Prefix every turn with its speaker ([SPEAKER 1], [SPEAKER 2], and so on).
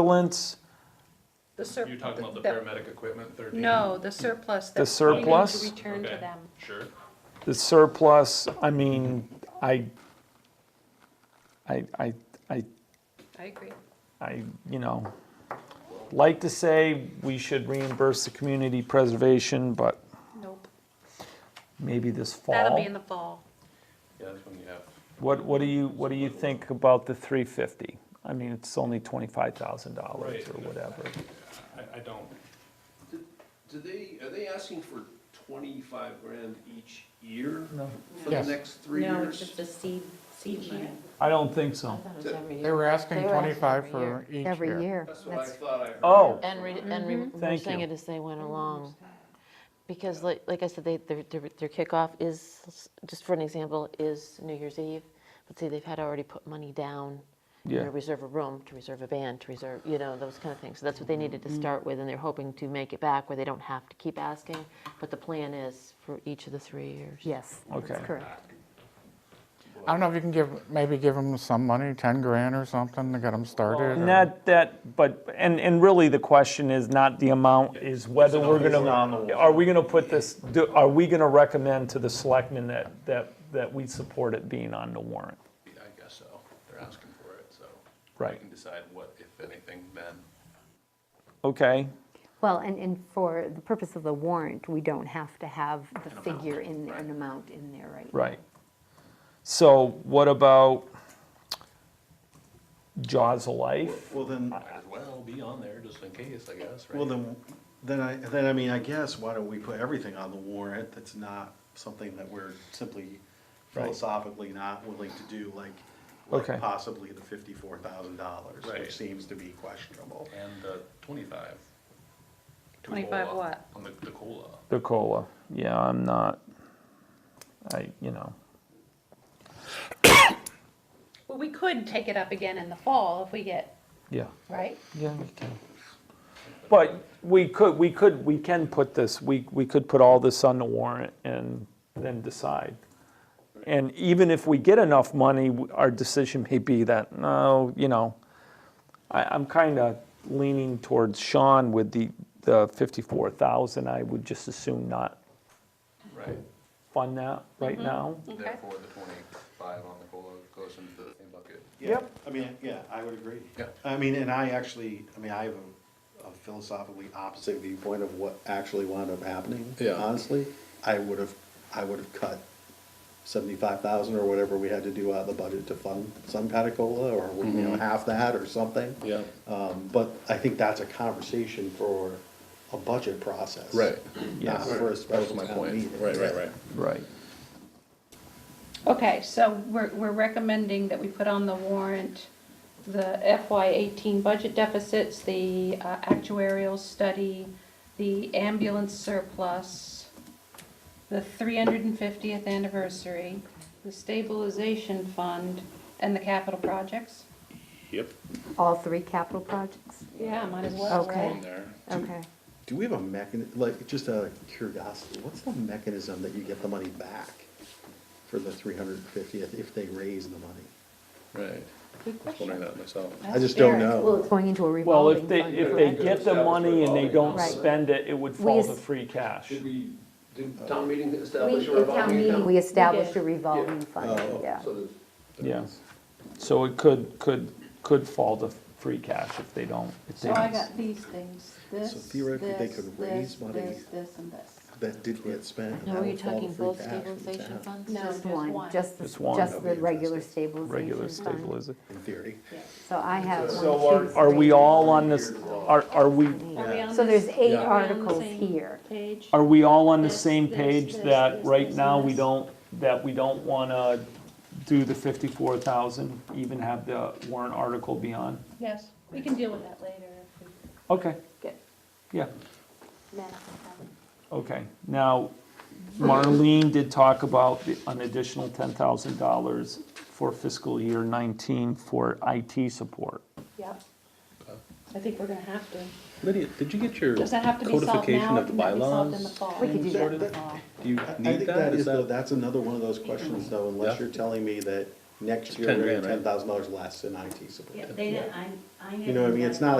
[SPEAKER 1] ambulance,
[SPEAKER 2] The surplus.
[SPEAKER 3] You're talking about the paramedic equipment, thirteen?
[SPEAKER 2] No, the surplus. that
[SPEAKER 1] The
[SPEAKER 2] we need to
[SPEAKER 1] surplus?
[SPEAKER 2] Return to
[SPEAKER 3] Okay,
[SPEAKER 2] them.
[SPEAKER 3] Sure.
[SPEAKER 1] the surplus, I mean, I, I, I, I,
[SPEAKER 2] I agree.
[SPEAKER 1] I, you know, like to say we should reimburse the community preservation, but
[SPEAKER 2] Nope.
[SPEAKER 1] maybe this
[SPEAKER 2] That'll be
[SPEAKER 1] fall.
[SPEAKER 2] in the fall.
[SPEAKER 3] Yeah, that's when you have,
[SPEAKER 1] What, what do you, what do you think about the three fifty? I mean, it's only twenty-five thousand dollars
[SPEAKER 3] Right.
[SPEAKER 1] or whatever.
[SPEAKER 3] I, I don't,
[SPEAKER 4] Do they, are they asking for twenty-five grand each year
[SPEAKER 1] No.
[SPEAKER 4] for the
[SPEAKER 5] Yes.
[SPEAKER 4] next three
[SPEAKER 6] No,
[SPEAKER 4] years?
[SPEAKER 6] it's just a seed, seed money.
[SPEAKER 1] I don't think so.
[SPEAKER 5] They were asking
[SPEAKER 7] They were asking
[SPEAKER 5] 25
[SPEAKER 7] every
[SPEAKER 5] for each
[SPEAKER 7] Every
[SPEAKER 5] year.
[SPEAKER 7] year.
[SPEAKER 4] That's what I
[SPEAKER 7] That's,
[SPEAKER 4] thought I heard.
[SPEAKER 1] Oh.
[SPEAKER 7] and re- and re-
[SPEAKER 1] Thank
[SPEAKER 7] reversing
[SPEAKER 1] you.
[SPEAKER 7] it as they went along. Because like, like I said, they, their, their their kickoff is, just for an example, is New Year's Eve. But see, they've had already put money down, you
[SPEAKER 1] Yeah.
[SPEAKER 7] know, reserve a room, to reserve a band, to reserve, you know, those kind of things. So that's what they needed to start with, and they're hoping to make it back where they don't have to keep asking. But the plan is for each of the three years.
[SPEAKER 6] Yes,
[SPEAKER 1] Okay.
[SPEAKER 6] that's correct.
[SPEAKER 5] I don't know if you can give, maybe give them some money, 10 grand or something to get them started. or-
[SPEAKER 1] And that, that, but, and, and really the question is not the amount, is whether we're gonna, are we gonna put this, do- are we gonna recommend to the selectmen that, that, that we support it being on the warrant?
[SPEAKER 3] I guess so, they're asking for it, so.
[SPEAKER 1] Right.
[SPEAKER 3] We can decide what, if anything, then.
[SPEAKER 1] Okay,
[SPEAKER 7] Well, and, and for the purpose of the warrant, we don't have to have the figure in, there, an amount in there right now.
[SPEAKER 1] right. So what about Jaws of Life?
[SPEAKER 8] Well, then,
[SPEAKER 3] Might as well be on there, just in case, I guess, right?
[SPEAKER 8] well, then, then I, then I mean, I guess, why don't we put everything on the warrant that's not something that we're simply philosophically not willing to do, like,
[SPEAKER 1] Okay.
[SPEAKER 8] like possibly the fifty-four thousand dollars,
[SPEAKER 3] Right.
[SPEAKER 8] which seems to be questionable.
[SPEAKER 3] And the twenty-five. to
[SPEAKER 2] 25
[SPEAKER 3] COLA,
[SPEAKER 2] what?
[SPEAKER 3] On the, the COLA.
[SPEAKER 1] The COLA, yeah, I'm not, I, you know,
[SPEAKER 2] Well, we could take it up again in the fall if we get,
[SPEAKER 1] yeah.
[SPEAKER 2] right?
[SPEAKER 1] Yeah, we can. But we could, we could, we can put this, we, we could put all this on the warrant and then decide. And even if we get enough money, our decision may be that, no, you know, I, I'm kind of leaning towards Sean with the, the fifty-four thousand. I would just assume not
[SPEAKER 3] Right,
[SPEAKER 1] fund that right now.
[SPEAKER 2] Okay.
[SPEAKER 3] therefore the twenty-five on the COLA goes into the same bucket.
[SPEAKER 8] Yeah, I mean, yeah, I would agree.
[SPEAKER 3] Yeah.
[SPEAKER 8] I mean, and I actually, I mean, I have a- a philosophically opposite viewpoint of what actually wound up happening.
[SPEAKER 3] Yeah.
[SPEAKER 8] Honestly, I would have, I would have cut seventy-five thousand or whatever we had to do out of the budget to fund some kind of COLA or, you know, half that or something.
[SPEAKER 3] Yeah.
[SPEAKER 8] Um, but I think that's a conversation for a budget process.
[SPEAKER 3] Right.
[SPEAKER 8] Not
[SPEAKER 1] Yes.
[SPEAKER 8] for a special town meeting.
[SPEAKER 1] Right.
[SPEAKER 2] Okay, so we're, we're recommending that we put on the warrant the FY eighteen budget deficits, the uh, actuarial study, the ambulance surplus, the three hundred and fiftieth anniversary, the stabilization fund, and the capital projects.
[SPEAKER 3] Yep,
[SPEAKER 6] All three capital projects?
[SPEAKER 2] Yeah, might as well,
[SPEAKER 6] Okay.
[SPEAKER 2] right?
[SPEAKER 3] there.
[SPEAKER 6] Okay.
[SPEAKER 8] Do we have a mechan, like, just out of curiosity, what's the mechanism that you get the money back for the three hundred and fiftieth if they raise the money?
[SPEAKER 3] Right.
[SPEAKER 2] Good
[SPEAKER 3] I was wondering that myself.
[SPEAKER 8] I just don't
[SPEAKER 2] Ask Eric.
[SPEAKER 8] know.
[SPEAKER 6] Well, it's going into a
[SPEAKER 1] Well, if
[SPEAKER 6] revolving
[SPEAKER 1] they,
[SPEAKER 6] fund.
[SPEAKER 1] if
[SPEAKER 6] right?
[SPEAKER 1] they get the money and they don't
[SPEAKER 6] Right.
[SPEAKER 1] spend it, it would fall to free cash.
[SPEAKER 4] Did we,
[SPEAKER 3] Uh,
[SPEAKER 4] did town meeting establish
[SPEAKER 6] We,
[SPEAKER 4] a
[SPEAKER 6] at town
[SPEAKER 4] revolving
[SPEAKER 6] meeting,
[SPEAKER 4] account?
[SPEAKER 6] we established a
[SPEAKER 2] did.
[SPEAKER 6] revolving fund,
[SPEAKER 8] Oh.
[SPEAKER 6] yeah.
[SPEAKER 4] So that-
[SPEAKER 1] Yeah, so it could, could, could fall to free cash if they don't, if they
[SPEAKER 2] So Oh, I
[SPEAKER 1] don't.
[SPEAKER 2] got these things, this,
[SPEAKER 8] So
[SPEAKER 2] this,
[SPEAKER 8] theoretically, they
[SPEAKER 2] this,
[SPEAKER 8] could raise
[SPEAKER 2] this,
[SPEAKER 8] money.
[SPEAKER 2] this, and this.
[SPEAKER 8] That did get spent. and
[SPEAKER 7] Now,
[SPEAKER 8] that
[SPEAKER 7] are you
[SPEAKER 8] would fall to
[SPEAKER 7] talking
[SPEAKER 8] free
[SPEAKER 7] both
[SPEAKER 8] cash for the
[SPEAKER 7] stabilization
[SPEAKER 8] town,
[SPEAKER 7] funds?
[SPEAKER 2] No,
[SPEAKER 6] Just
[SPEAKER 2] just
[SPEAKER 6] one,
[SPEAKER 2] one.
[SPEAKER 6] just,
[SPEAKER 1] Just one.
[SPEAKER 6] the- just the
[SPEAKER 8] That'd be
[SPEAKER 6] regular
[SPEAKER 1] Regular
[SPEAKER 6] stabilization fund.
[SPEAKER 1] stabilization.
[SPEAKER 8] In theory.
[SPEAKER 6] So I have one,
[SPEAKER 1] So
[SPEAKER 6] two,
[SPEAKER 1] are, are we
[SPEAKER 6] three.
[SPEAKER 1] all on this, are, are we,
[SPEAKER 2] Are we on
[SPEAKER 6] So
[SPEAKER 2] this
[SPEAKER 6] there's eight
[SPEAKER 2] Are we on the
[SPEAKER 6] articles
[SPEAKER 2] same
[SPEAKER 6] here.
[SPEAKER 2] Page.
[SPEAKER 1] are we all on the
[SPEAKER 2] This,
[SPEAKER 1] same
[SPEAKER 2] this,
[SPEAKER 1] page
[SPEAKER 2] this,
[SPEAKER 1] that
[SPEAKER 2] this,
[SPEAKER 1] right
[SPEAKER 2] this,
[SPEAKER 1] now
[SPEAKER 2] and
[SPEAKER 1] we
[SPEAKER 2] this?
[SPEAKER 1] don't, that we don't wanna do the fifty-four thousand, even have the warrant article be on?
[SPEAKER 2] Yes, we can deal with that later if we
[SPEAKER 1] Okay,
[SPEAKER 2] get
[SPEAKER 1] yeah,
[SPEAKER 2] mad.
[SPEAKER 1] okay. Now, Marlene did talk about the- an additional ten thousand dollars for fiscal year nineteen for IT support.
[SPEAKER 2] Yep. I think we're gonna have to.
[SPEAKER 9] Lydia, did you get your
[SPEAKER 2] Does that have to be solved now?
[SPEAKER 9] codification
[SPEAKER 2] or
[SPEAKER 9] of the
[SPEAKER 2] Can that be solved in the
[SPEAKER 9] bylaws?
[SPEAKER 2] fall?
[SPEAKER 6] We could do that in the
[SPEAKER 8] Sorted.
[SPEAKER 6] fall.
[SPEAKER 9] Do you
[SPEAKER 8] I I
[SPEAKER 9] need
[SPEAKER 8] think
[SPEAKER 9] that?
[SPEAKER 8] that
[SPEAKER 9] Is
[SPEAKER 8] is, though,
[SPEAKER 9] that,
[SPEAKER 8] that's another one of those questions, though, unless
[SPEAKER 9] Yeah.
[SPEAKER 8] you're telling me that
[SPEAKER 2] next year,
[SPEAKER 10] Ten
[SPEAKER 2] we're
[SPEAKER 10] grand, right?
[SPEAKER 2] ten thousand dollars less in IT support.
[SPEAKER 8] Yeah, they didn't, I, I never.
[SPEAKER 2] You know what I mean?
[SPEAKER 8] got-
[SPEAKER 2] It's not